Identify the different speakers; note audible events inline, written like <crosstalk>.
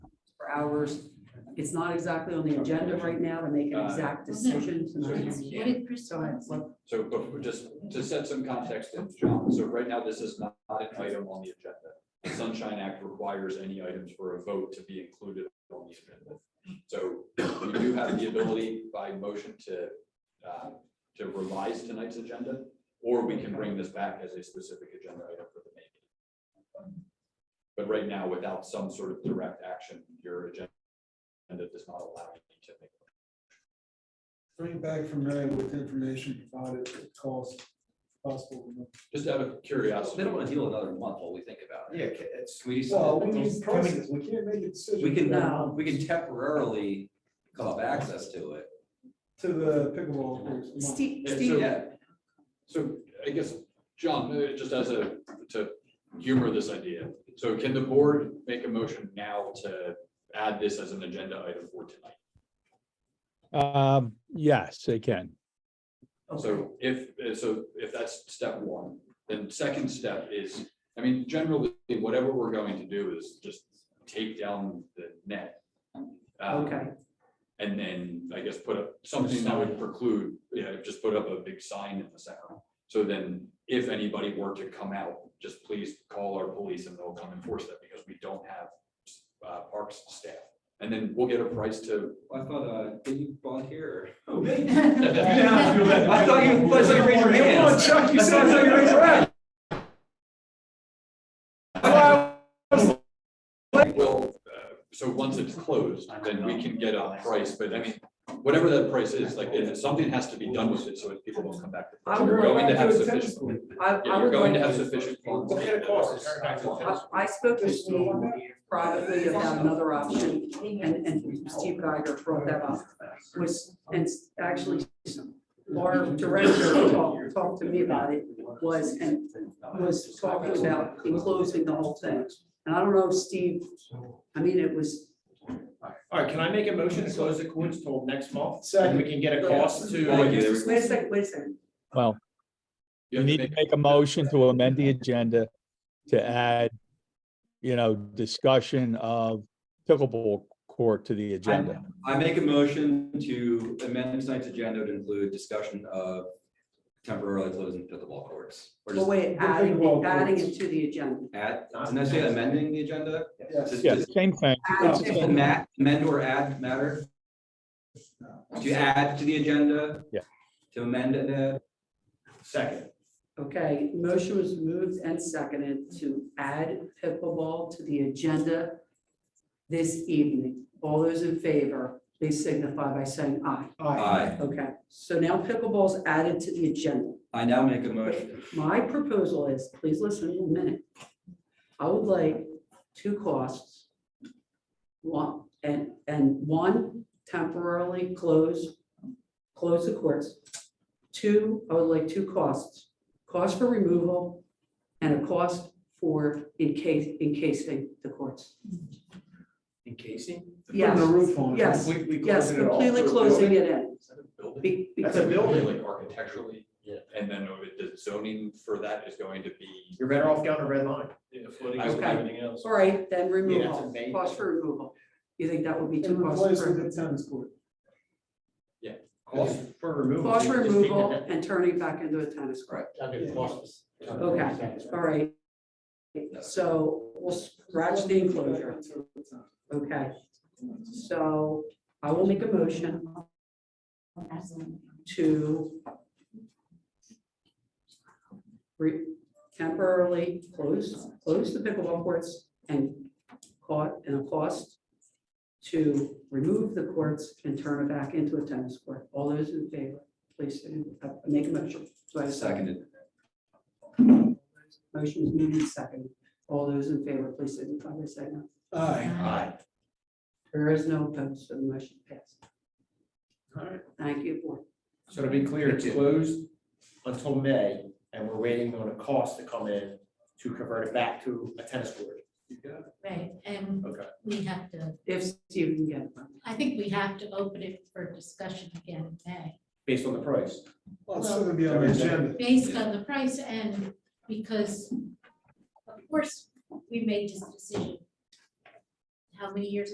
Speaker 1: hours. It's not exactly on the agenda right now to make an exact decision tonight.
Speaker 2: What did Chris
Speaker 1: Go ahead,
Speaker 2: say?
Speaker 1: what-
Speaker 3: So but just to set some context, to John, so right now, this is not an item on the agenda. The Sunshine Act requires any items for a vote to be included on the agenda. So we do have the ability by motion to, uh, to revise tonight's agenda, or we can bring this back as a specific agenda item for the meeting. But right now, without some sort of direct action, your agenda does not allow you to make.
Speaker 4: Bring it back from Ray with information provided at cost, possible.
Speaker 3: Just out of curiosity.
Speaker 5: They don't want to deal another month while we think about it.
Speaker 6: Yeah, ca- it's,
Speaker 5: We just,
Speaker 4: Well, we
Speaker 5: can
Speaker 4: need process, we can't make a decision.
Speaker 5: we can,
Speaker 1: No.
Speaker 5: we can temporarily call access to it.
Speaker 4: To the pickleball. courts.
Speaker 1: Steve,
Speaker 3: Yeah,
Speaker 1: Steve,
Speaker 5: Yeah,
Speaker 3: So I guess, John, uh, just as a, to humor this idea, so can the board make a motion now to add this as an agenda item for tonight?
Speaker 7: Um, yes, they can.
Speaker 3: So if, uh, so if that's step one, then second step is, I mean, generally, whatever we're going to do is just take down the net. um,
Speaker 1: okay,
Speaker 3: <laughs> And then I guess put up something that would preclude, yeah, just put up a big sign in the center. So then if anybody were to come out, just please call our police and they'll come enforce that because we don't have uh, parks staff. And then we'll get a price
Speaker 6: <laughs>
Speaker 3: to,
Speaker 5: I thought, uh, did you volunteer? <laughs>
Speaker 6: I thought you- I thought
Speaker 3: uh,
Speaker 6: you raised your hand.
Speaker 5: Come on, Chuck, you said- I thought you raised your hand.
Speaker 3: we'll, uh, so once it's closed, then we can get a price, but I mean, whatever that price is, like, if something has to be done with it, so that people don't come back. to
Speaker 1: I
Speaker 3: So You're
Speaker 1: would
Speaker 3: going to have
Speaker 4: Back to the tennis court.
Speaker 3: sufficient,
Speaker 1: I,
Speaker 3: yeah,
Speaker 1: I
Speaker 3: you're
Speaker 1: would
Speaker 3: going to have
Speaker 1: like,
Speaker 3: sufficient funds.
Speaker 6: Look at the costs.
Speaker 1: I, I spoke to Steve privately about another option, and, and Steve Geiger brought that up, was, and actually, our director talked, talked to me about it, was, and was talking about closing the whole thing. And I don't know if Steve, I mean, it was,
Speaker 6: all right, can I make a motion to close the courts till next month? And
Speaker 4: Second,
Speaker 6: we can get a cost to.
Speaker 3: Thank you.
Speaker 1: wait a second, wait a second,
Speaker 7: Well,
Speaker 3: You
Speaker 7: you
Speaker 3: have to
Speaker 7: need to make a motion to amend the agenda to add, you know, discussion of pickleball court to the agenda.
Speaker 5: I make a motion to amend tonight's agenda to include discussion of temporarily closing pickleball courts. Or
Speaker 1: well,
Speaker 5: just
Speaker 1: wait,
Speaker 4: We'll think
Speaker 1: adding,
Speaker 4: about
Speaker 1: adding
Speaker 4: this.
Speaker 1: it to the agenda.
Speaker 5: add, didn't I say amending the agenda?
Speaker 4: yes.
Speaker 5: Just-
Speaker 7: Yeah,
Speaker 5: just
Speaker 7: same thing.
Speaker 1: Add to the-
Speaker 5: ma- Amend or add matter? To add to the agenda?
Speaker 7: Yeah.
Speaker 5: To amend and add?
Speaker 6: Second,
Speaker 1: Okay, motion was moved and seconded to add pickleball to the agenda this evening. All those in favor, please signify by saying aye.
Speaker 6: Uh,
Speaker 5: Aye.
Speaker 1: Okay, so now pickleball's added to the agenda.
Speaker 5: I now make a motion.
Speaker 1: My proposal is, please listen in a minute. I would like two costs. One, and, and one temporarily close, close the courts. Two, I would like two costs, cost for removal and a cost for encase, encasing the courts.
Speaker 6: encasing.
Speaker 4: Putting the
Speaker 1: Yes,
Speaker 4: roof on. it.
Speaker 1: yes,
Speaker 6: Completely
Speaker 1: yes,
Speaker 6: closing it off.
Speaker 1: completely closing it in.
Speaker 3: Is that a building?
Speaker 1: Be-
Speaker 6: That's a
Speaker 1: because-
Speaker 3: building,
Speaker 6: building.
Speaker 3: like architecturally. Yeah. And then uh, the zoning for that is going to be.
Speaker 6: You're better off down a red line.
Speaker 3: I would-
Speaker 1: Okay. All right, then
Speaker 6: Yeah,
Speaker 1: removal,
Speaker 6: it's a-
Speaker 1: cost for removal. You think that would be too
Speaker 4: And
Speaker 1: costly?
Speaker 4: replace it
Speaker 1: for-
Speaker 4: with a tennis court.
Speaker 6: Cost for removal.
Speaker 1: Cost
Speaker 6: you
Speaker 1: for
Speaker 6: can just take the
Speaker 1: removal
Speaker 6: net.
Speaker 1: and turning it back into a tennis court. Okay, all right. So we'll scratch the enclosure, okay? So I will make a motion to re- temporarily close, close the pickleball courts and caught, and a cost to remove the courts and turn it back into a tennis court. All those in favor, please uh, make a motion. Do I have a second?
Speaker 5: Seconded.
Speaker 1: Motion is moved and seconded. All those in favor, please signify by saying aye.
Speaker 4: Aye.
Speaker 5: Aye.
Speaker 1: There is no opposed, so the motion passed.
Speaker 6: All right.
Speaker 1: Thank you, board.
Speaker 6: So to be clear, it's
Speaker 5: Thank you.
Speaker 6: closed until May and we're waiting on a cost to come in to convert it back to a tennis court.
Speaker 2: Right, and
Speaker 6: Okay.
Speaker 2: we have to,
Speaker 1: If Steve can get it.
Speaker 2: I think we have to open it for discussion again in May,
Speaker 6: Based on the price.
Speaker 4: Well, it's still gonna be on the agenda.
Speaker 2: based on the price and because of course, we made this decision how many years